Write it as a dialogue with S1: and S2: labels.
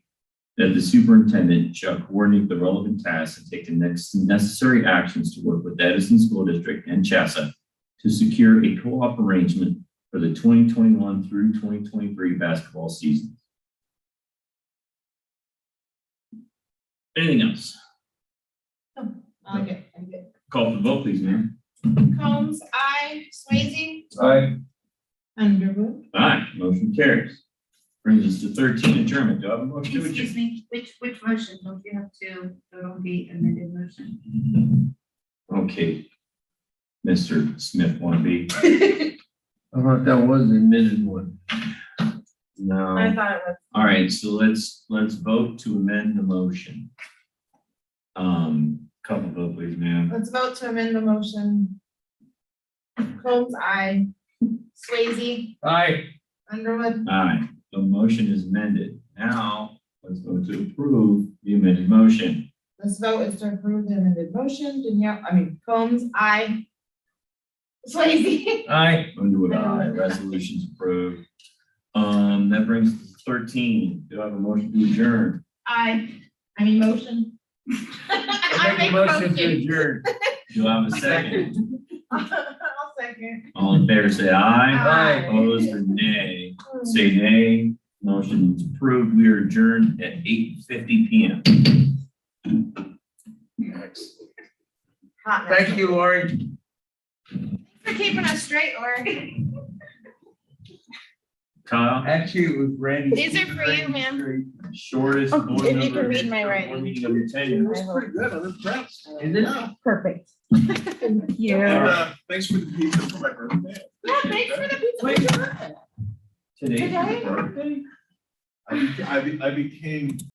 S1: that the superintendent shall coordinate the relevant tasks and take the next necessary actions to work with Edison School District and Chassa to secure a co-op arrangement for the 2021 through 2023 basketball season. Anything else?
S2: Um, I'm good.
S1: Call for the vote, please, ma'am.
S2: Combs, I, Swayze,
S1: Aye.
S3: Underwood,
S1: Aye, motion carries. Brings us to 13, adjournment. Do I have a motion to
S4: Excuse
S1: adjourn?
S4: me, which, which motion? Don't you have to vote on the amended motion?
S1: Okay. Mr. Smith, want to be?
S5: I thought that was the admitted one. No.
S2: thought it was.
S1: All right, so let's, let's vote to amend the motion. Um, couple vote, please, ma'am.
S2: Let's vote to amend the motion. Combs, I, Swayze,
S5: Aye.
S2: Underwood,
S1: Aye, the motion is amended. Now, let's vote to approve the amended motion.
S2: this vote is to approve the amended motion, Danielle, I mean, Combs, I, Swayze.
S5: Aye.
S1: Underwood, aye, resolution's approved. Um, that brings us to thirteen. Do I have a motion to adjourn?
S2: I, I mean, motion. I
S5: Make a motion to adjourn.
S1: Do I have a second?
S2: I'll second.
S1: All in favor, say aye.
S5: Aye.
S1: Opposed or nay? Say nay. Motion is approved. We are adjourned at eight fifty P M.
S2: Hotness.
S5: Thank you, Lori.
S2: For keeping us straight, or,
S1: Kyle?
S5: Actually, it was Randy.
S2: These are for you, ma'am.
S1: shortest board member.
S2: if you can read my
S1: board
S2: writing.
S1: Meeting of your tenure.
S5: That's pretty good. I'm impressed. Is it?
S3: perfect. Thank you.
S1: All
S6: And
S1: right.
S6: uh, thanks for the pizza for my birthday.
S2: yeah, thanks for the pizza. Where'd you learn that?
S1: Today's your
S2: Today?
S1: birthday?
S6: I, be- I be- I became